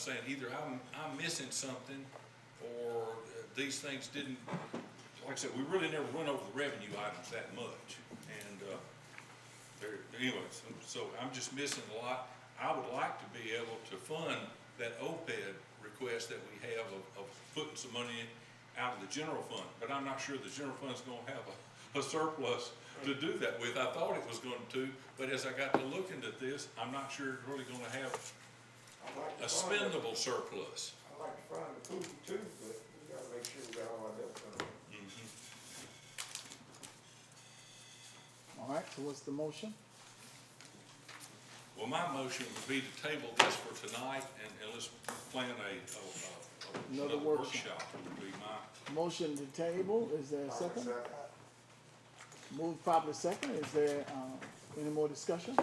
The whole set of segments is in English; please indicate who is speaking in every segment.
Speaker 1: saying either I'm, I'm missing something or uh, these things didn't, like I said, we really never run over the revenue items that much. And, uh, there, anyways, so I'm just missing a lot. I would like to be able to fund that OPEB request that we have of, of putting some money in, out of the general fund, but I'm not sure the general fund's gonna have a, a surplus to do that with. I thought it was going to, but as I got to looking at this, I'm not sure it's really gonna have
Speaker 2: I'd like
Speaker 1: a
Speaker 2: to find it.
Speaker 1: spendable surplus.
Speaker 2: I'd like to find the poopy too, but we gotta make sure we got all our ducks in a row.
Speaker 3: All right, so what's the motion?
Speaker 1: Well, my motion would be to table this for tonight and, and let's plan a, a, a,
Speaker 3: Another
Speaker 1: another
Speaker 3: workshop.
Speaker 1: workshop would be my,
Speaker 3: Motion to table, is there a second? Move properly second, is there, uh, any more discussion?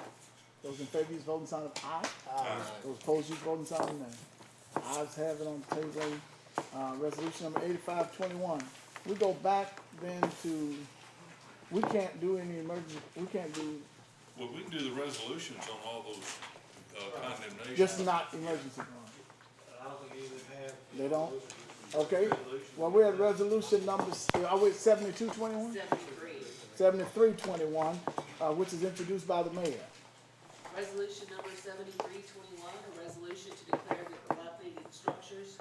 Speaker 3: Those in favor, use voting sign of aye. Aye. Those opposed, use voting sign of nay. Ayes have it on table, uh, resolution number eighty-five twenty-one. We go back then to, we can't do any emergency, we can't do,
Speaker 1: well, we can do the resolutions on all those, uh, condemnations.
Speaker 3: just not emergency fund.
Speaker 4: I don't think you even have.
Speaker 3: They don't? Okay, well, we're at resolution number, s- uh, are we at seventy-two twenty-one?
Speaker 5: Seventy-three,
Speaker 3: Seventy-three twenty-one, uh, which is introduced by the mayor.
Speaker 5: resolution number seventy-three twenty-one, a resolution to declare the dilapidated structures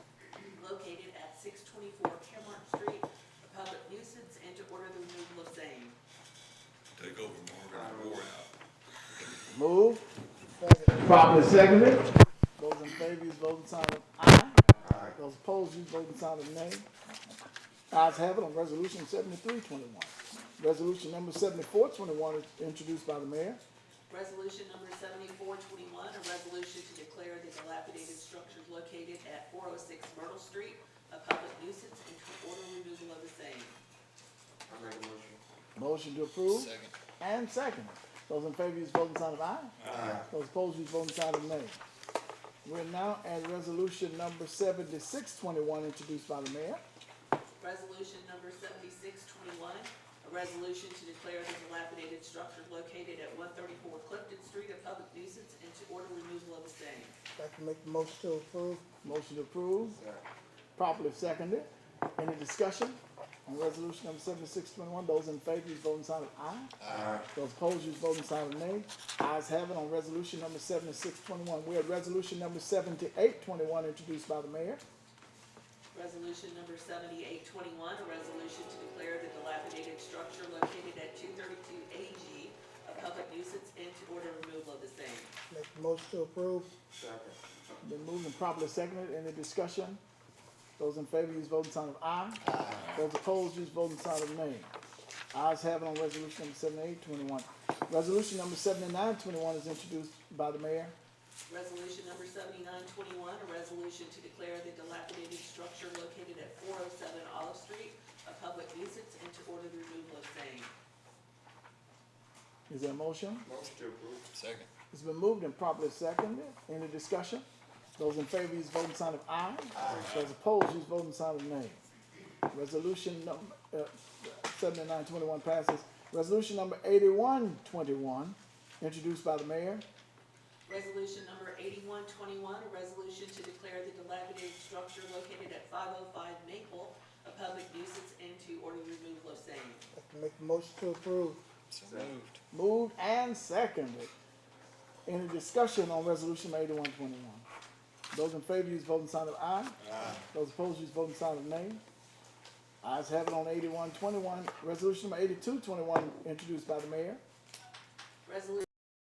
Speaker 5: located at six twenty-four Caremark Street a public nuisance and to order the removal of same.
Speaker 1: Take over Marvin Ward out.
Speaker 3: Move. Properly seconded. Those in favor, use voting sign of aye. Those opposed, use voting sign of nay. Ayes have it on resolution seventy-three twenty-one. Resolution number seventy-four twenty-one is introduced by the mayor.
Speaker 5: Resolution number seventy-four twenty-one, a resolution to declare the dilapidated structures located at four oh six Myrtle Street a public nuisance and to order removal of the same.
Speaker 2: I make a motion.
Speaker 3: Motion to approve. Second. And second. Those in favor, use voting sign of aye. Those opposed, use voting sign of nay. We're now at resolution number seventy-six twenty-one introduced by the mayor.
Speaker 5: Resolution number seventy-six twenty-one, a resolution to declare the dilapidated structure located at one thirty-four Clifton Street a public nuisance and to order removal of the same.
Speaker 3: I can make the motion to approve. Motion to approve. Properly seconded. Any discussion on resolution number seventy-six twenty-one? Those in favor, use voting sign of aye. Aye. Those opposed, use voting sign of nay. Ayes have it on resolution number seventy-six twenty-one. We're at resolution number seventy-eight twenty-one introduced by the mayor.
Speaker 5: Resolution number seventy-eight twenty-one, a resolution to declare the dilapidated structure located at two thirty-two AG a public nuisance and to order removal of the same.
Speaker 3: Make the motion to approve.
Speaker 2: Second.
Speaker 3: Been moved and properly seconded. Any discussion? Those in favor, use voting sign of aye. Aye. Those opposed, use voting sign of nay. Ayes have it on resolution number seventy-eight twenty-one. Resolution number seventy-nine twenty-one is introduced by the mayor.
Speaker 5: Resolution number seventy-nine twenty-one, a resolution to declare the dilapidated structure located at four oh seven Olive Street a public nuisance and to order the removal of same.
Speaker 3: Is there a motion?
Speaker 2: Motion to approve.
Speaker 3: It's been moved and properly seconded. Any discussion? Those in favor, use voting sign of aye. Those opposed, use voting sign of nay. Resolution number, uh, seventy-nine twenty-one passes. Resolution number eighty-one twenty-one, introduced by the mayor.
Speaker 5: Resolution number eighty-one twenty-one, a resolution to declare the dilapidated structure located at five oh five Maple a public nuisance and to order the removal of same.
Speaker 3: Make the motion to approve. moved. Moved and seconded. Any discussion on resolution eighty-one twenty-one? Those in favor use voting sign of aye. Aye. Those opposed use voting sign of nay. Ayes have it on eighty-one twenty-one. Resolution number eighty-two twenty-one introduced by the mayor.
Speaker 5: Resolution